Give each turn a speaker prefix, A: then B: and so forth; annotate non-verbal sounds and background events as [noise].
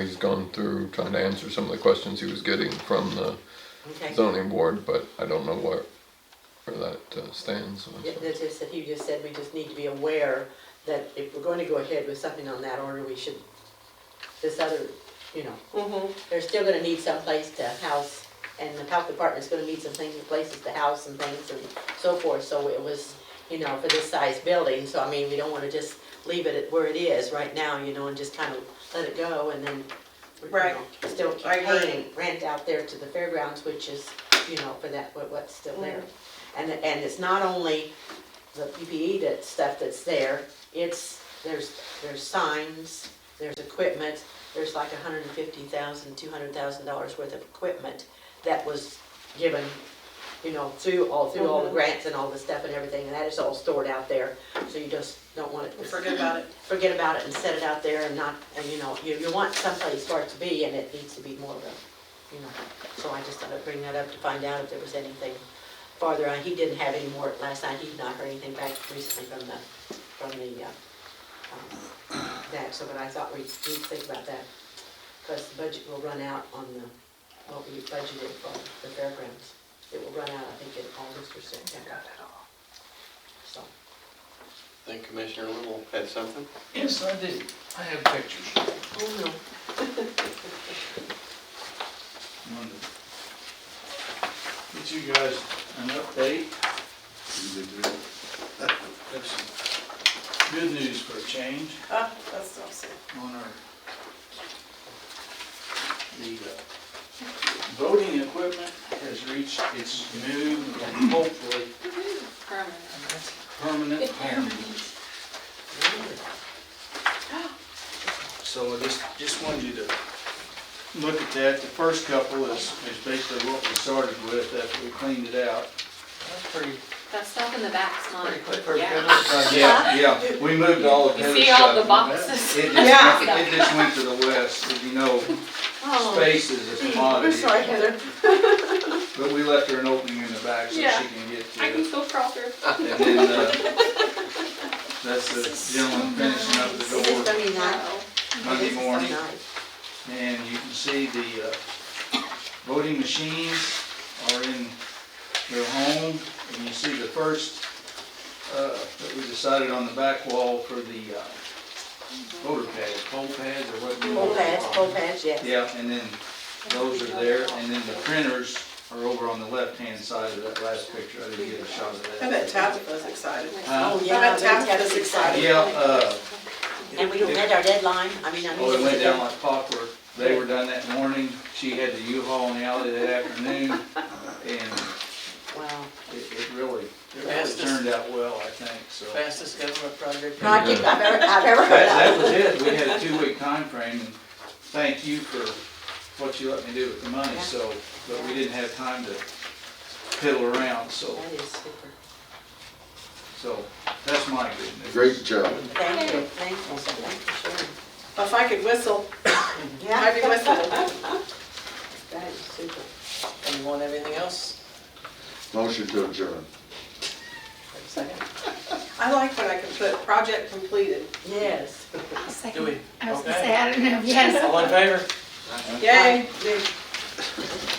A: He's gone through trying to answer some of the questions he was getting from the
B: Okay.
A: zoning board, but I don't know where, where that uh, stands. so-
B: Yeah, That's just that he just said we just need to be aware that if we're going to go ahead with something on that order, we should, this other, you
C: Mm-hmm.
B: know, they're still gonna need some place to house, and the health department's gonna need some things, places to house and things and so forth, so it was, you know, for this size building, so I mean, we don't wanna just leave it at where it is right now, you know, and just kind of let it go and then, you
C: Right.
B: know, still keep
C: I agree.
B: paying rent out there to the fairgrounds, which is, you know, for that, what- what's still there. And, and it's not only the PPE that, stuff that's there, it's, there's, there's signs, there's equipment, there's like a hundred and fifty thousand, two hundred thousand dollars worth of equipment that was given, you know, through, all, through
C: Mm-hmm.
B: all the grants and all the stuff and everything, and that is all stored out there, so you just don't want it.
C: Forget about it.
B: [laughs] Forget about it and set it out there and not, and you know, you, you want someplace for it to be, and it needs to be more of a, you know. So I just thought I'd bring that up to find out if there was anything farther on. He didn't have any more last night. He'd not heard anything back recently from the, from the, uh, um, that, so but I thought we'd, we'd think about that. Because the budget will run out on the, what we budgeted for the fairgrounds. It will run out, I think, in August or September. So,
D: I think Commissioner Little had something.
E: Yes, I did. I have pictures.
B: oh no.
E: Wanted to Get you guys an update. Have some good news for a change
C: Ah, that's awesome.
E: on our, the uh, voting equipment has reached its new and hopefully permanent home. [gasps] So I just, just wanted you to look at that. The first couple is, is basically what we started with after we cleaned it out.
F: That stuff in the back's mine.
E: Uh, Yeah, yeah, we moved all the
F: You
E: heavy stuff.
F: see all the boxes. [laughs]
E: It just,
C: Yeah.
E: went- it just went to the west, as you know,
F: Oh,
E: space
F: [laughs]
E: is a
B: We're
E: commodity,
B: sorry, Heather.
E: but we left her an opening in the back so she
F: Yeah.
E: can get to
F: I can
E: it.
F: still crawl through.
E: And then, uh, that's
F: [laughs]
E: the gentleman finishing up
B: Is this
E: the
B: gonna be nice?
F: Oh.
E: door Monday
B: This is
E: morning.
B: nice.
E: And you can see the uh, voting machines are in their home. And you see the first uh, that we decided on the back wall for the uh, voter pads, poll pads or what you
B: Full
E: want to
B: pads,
E: call
B: full
E: them.
B: pads, yes.
E: Yeah, and then those are there. And then the printers are over on the left-hand side of that last picture. I didn't get a shot of
C: I
E: that.
C: bet Tabitha's excited.
E: Huh?
B: Oh,
C: I
B: yeah,
C: bet
B: we have
C: Tabitha's excited.
E: Yeah, uh,
B: And we don't met our deadline, I mean, I mean.
E: Oh, it went down like clockwork. They were done that morning. She had the U-Haul in the alley that afternoon, and
B: Wow.
E: it, it really, it really
G: Fastest-
E: turned out well, I think, so. That,
G: fastest government project.
B: Project I've ever, I've ever heard
E: that
B: of.
E: was it. We had a two-week time frame, and thank you for what you let me do with the money,
B: Yeah.
E: so, but we didn't have time to piddle around, so,
B: That is super.
E: so that's my good news.
H: Great job.
B: Thank you, thank you, so thank you for sharing.
C: If I could whistle, I'd be
B: Yeah,
C: whistling.
B: that is super.
G: And you want everything else?
H: Motion to adjourn.
G: Wait a second.
C: I like when I can put project completed.
B: Yes.
G: Do we?
I: I was gonna
G: Okay.
I: say, I don't know, yes.
G: All in favor?
C: Yay.